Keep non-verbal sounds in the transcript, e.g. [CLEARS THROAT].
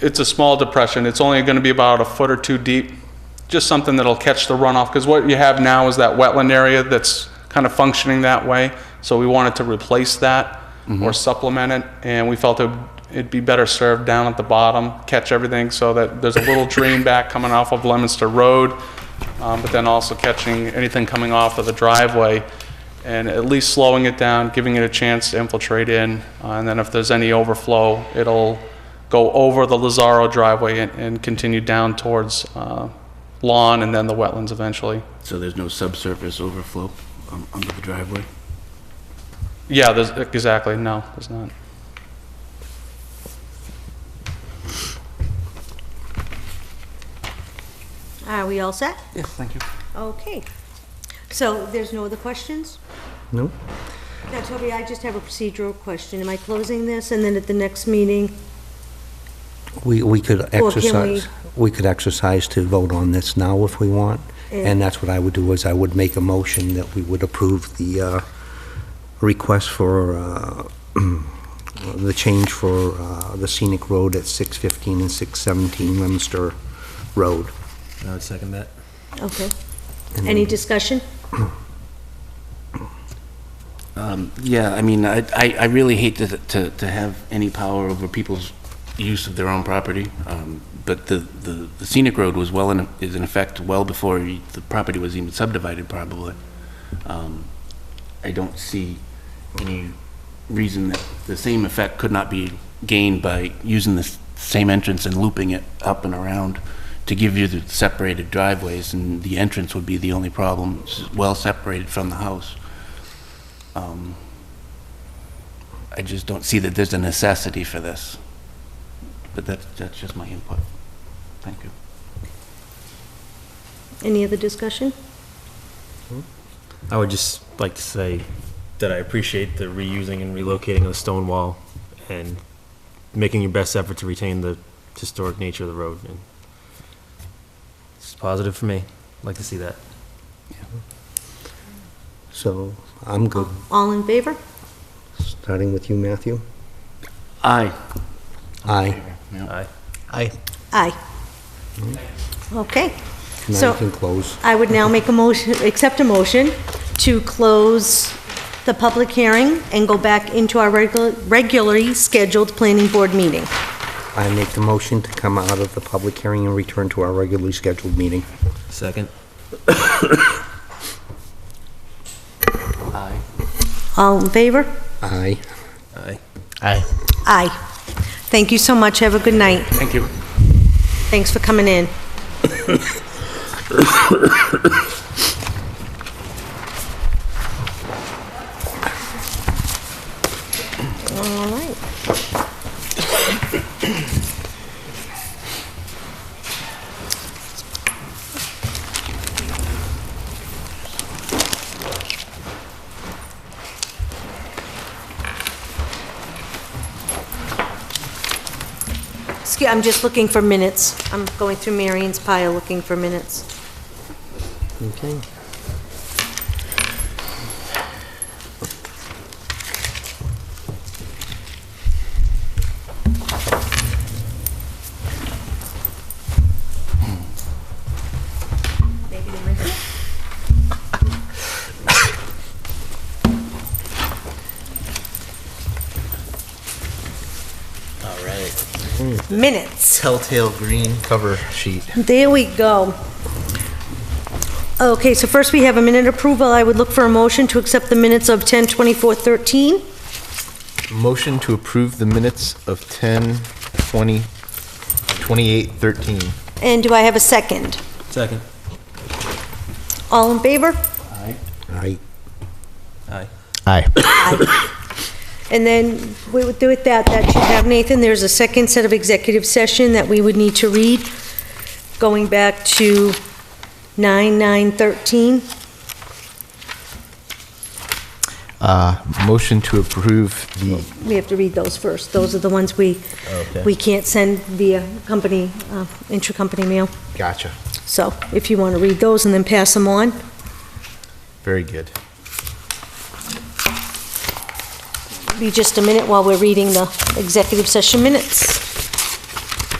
it's a small depression. It's only going to be about a foot or two deep, just something that'll catch the runoff. Because what you have now is that wetland area that's kind of functioning that way. So we wanted to replace that or supplement it. And we felt it- it'd be better served down at the bottom, catch everything so that there's a little drain back coming off of Lemonster Road, um, but then also catching anything coming off of the driveway and at least slowing it down, giving it a chance to infiltrate in. uh, And then if there's any overflow, it'll go over the Lazaro driveway and, and continue down towards uh, lawn and then the wetlands eventually. So there's no subsurface overflow um, under the driveway? Yeah, there's, exactly, no, there's not. Are we all set? Yes, thank you. Okay. So there's no other questions? No? Now, Toby, I just have a procedural question. Am I closing this and then at the next meeting? We, we could we- exercise, we could exercise to vote on this now if we want, and that's what I would do, is I would make a motion that we would approve the uh, request for, uh, [CLEARS THROAT] the change for uh, the scenic road at 615 and 617 Lemonster Road. I would second that. Okay. Any discussion? Yeah, I mean, I, I I really hate to, to, to have any power over people's use of their own property, um, but the, the the scenic road was well in, is in effect well before y- the property was even subdivided, probably. Um, I don't see any reason that the same effect could not be gained by using the s- same entrance and looping it up and around to give you the separated driveways, and the entrance would be the only problem, s- well separated from the house. I just don't see that there's a necessity for this. But that, that's just my input. Thank you. Any other discussion? I would just like to say that I appreciate the reusing and relocating of the stone wall and making your best effort to retain the historic nature of the road. And It's positive for me. I'd Like to see that. So I'm good, All in favor? starting with you, Matthew. Aye. Aye. Aye. Aye. Aye. Okay. Mm-hmm. Now So- you can close. I would now make a motion, accept a motion to close the public hearing and go back into our regular regularly scheduled planning board meeting. I make the motion to come out of the public hearing and return to our regularly scheduled meeting. Second. Aye. All in favor? Aye. Aye. Aye. Aye. Thank you so much. Have a good night. Thank you. Thanks for coming in. All right. Excuse, I'm just looking for minutes. I'm going through Marion's pile looking for minutes. Okay. Maybe they missed it. All right. Minutes. Telltale green cover sheet. There we go. Okay, so first we have a minute approval. I would look for a motion to accept the minutes of 10:24:13. Motion to approve the minutes of 10, 20, 28, 13. And do I have a second? Second. All in favor? Aye. Aye. Aye. [COUGHS] And then we would do it that, that you have, Nathan, there's a second set of executive session that we would need to read, going back to 9913. Uh, Motion to approve the, We have to read those first. Those are the ones we, Okay. we can't send via company, uh, intra-company mail. gotcha, So if you want to read those and then pass them on. very good. be just a minute while we're reading the executive session minutes.